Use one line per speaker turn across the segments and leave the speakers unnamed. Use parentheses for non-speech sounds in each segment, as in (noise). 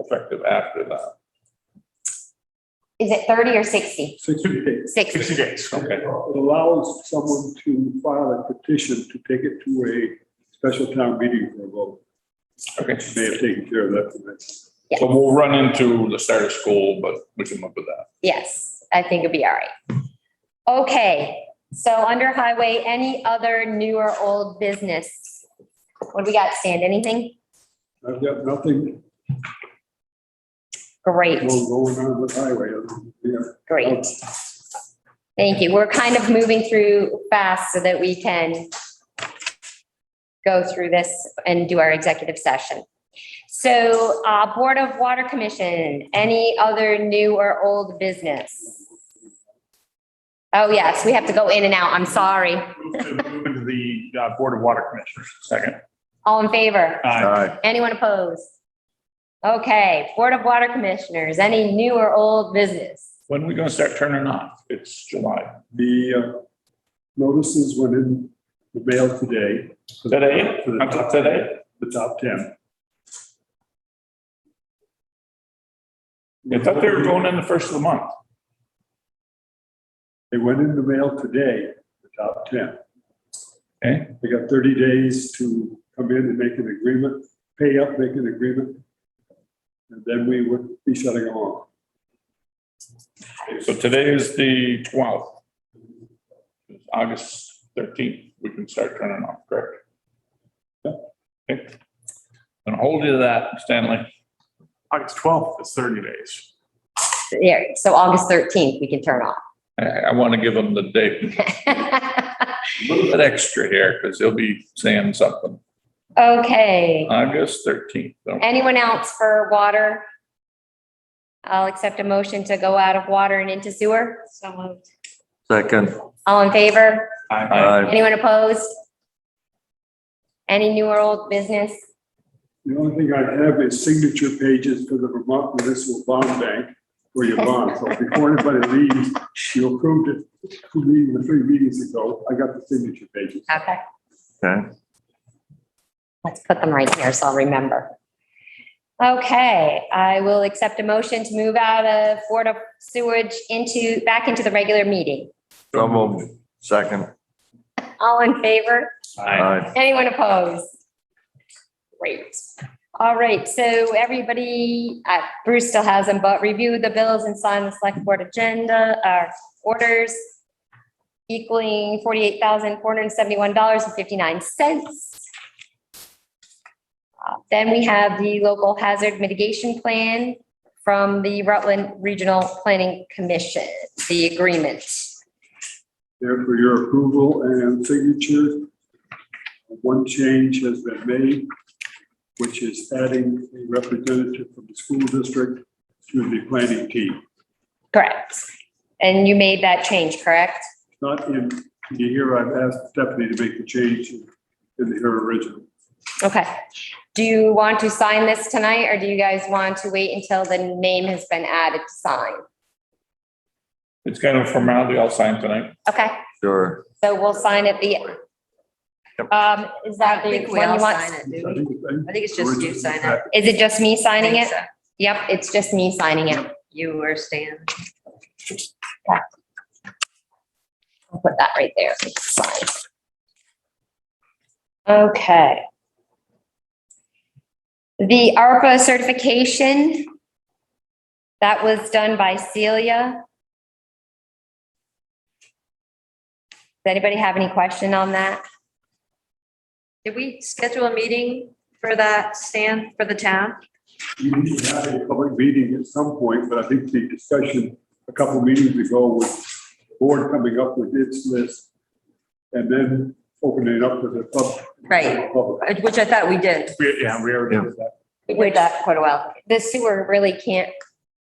effective after that.
Is it thirty or sixty?
sixty days.
Sixty.
days. Okay,
It allows someone to file a petition to take it to a special town meeting for a vote.
okay.
May have taken care of that. tonight.
So we'll run into the start of school, but we can look at that.
Yes, I think it'd be all right. Okay, so under highway, any other new or old business? What do we got, Stan? Anything?
I've got nothing
Great,
going on with highway. Yeah.
great. Thank you. We're kind of moving through fast so that we can go through this and do our executive session. So, uh, Board of Water Commission, any other new or old business? Oh, yes, we have to go in and out. I'm sorry.
Move to move into the uh, Board of Water Commissioners. Second.
All in favor?
Aye.
Anyone opposed? Okay, Board of Water Commissioners, any new or old business?
When are we gonna start turning off? It's July.
The uh, notices went in the mail today.
Today?
For the
Until
top-
today?
The top ten.
I thought they were going in the first of the month.
They went in the mail today, the top ten.
Okay.
They got thirty days to come in and make an agreement, pay up, make an agreement. And then we would be shutting them off.
So today is the twelfth. August thirteenth, we can start turning off, correct? Yeah. Okay. And hold you to that, Stanley.
August 12th is 30 days.
Yeah, so August 13th, we can turn off.
I, I want to give them the date,
(laughs)
a little bit extra here, because they'll be saying something.
Okay,
August thirteenth.
anyone else for water? I'll accept a motion to go out of water and into sewer. So moved.
Second.
All in favor?
Aye.
Anyone opposed? Any new or old business?
The only thing I have is signature pages for the Vermont Municipal Bond Bank for your bond. So before anybody leaves, you approved it, two meetings, three meetings ago. I got the signature pages.
Okay,
Okay.
let's put them right here so I'll remember. Okay, I will accept a motion to move out of Board of Sewage into, back into the regular meeting.
So moved. Second.
All in favor?
Aye.
Anyone opposed? Great. All right, so everybody, uh, Bruce still has them, but review the bills and sign the select board agenda, uh, orders equaling forty-eight thousand, four hundred and seventy-one dollars and fifty-nine cents. Uh, Then we have the local hazard mitigation plan from the Rutland Regional Planning Commission, the agreement.
There for your approval and signature. One change has been made, which is adding a representative from the school district to the planning team.
Correct. And you made that change, correct?
Not in, you hear I've asked Stephanie to make the change in in her original.
Okay. Do you want to sign this tonight or do you guys want to wait until the name has been added to sign?
It's kind of a formality, I'll sign tonight.
Okay,
Sure.
so we'll sign at the,
Yep.
um, is that the
we
one
all
you
sign
want?
I
it, do we?
think it's-
I think it's just you sign it.
Is it just me signing
Think
it?
so.
Yep, it's just me signing it.
You or Stan.
I'll put that right there. Sign. Okay. The ARPA certification, that was done by Celia. Does anybody have any question on that?
Did we schedule a meeting for that, Stan, for the town?
You need to have a public meeting at some point, but I think the discussion a couple meetings ago was the board coming up with its list and then opening it up to the pub.
Right.
public.
Which I thought we did.
We- Yeah, we already did that.
We did that
quite a while.
The sewer really can't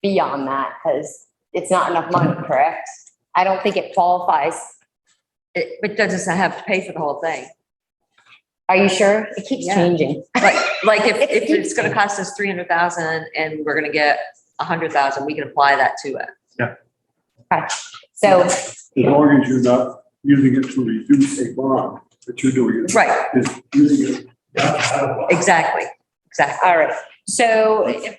be on that because it's not enough money, correct? I don't think it qualifies.
It, it doesn't have to pay for the whole thing.
Are you sure? It keeps
Yeah.
changing.
Like, like if, if it's gonna cost us three hundred thousand and we're gonna get a hundred thousand, we can apply that to it.
So,
As long as you're not using it to reduce a bond, but you're doing it,
Right,
is using it.
exactly, exactly.
all right. So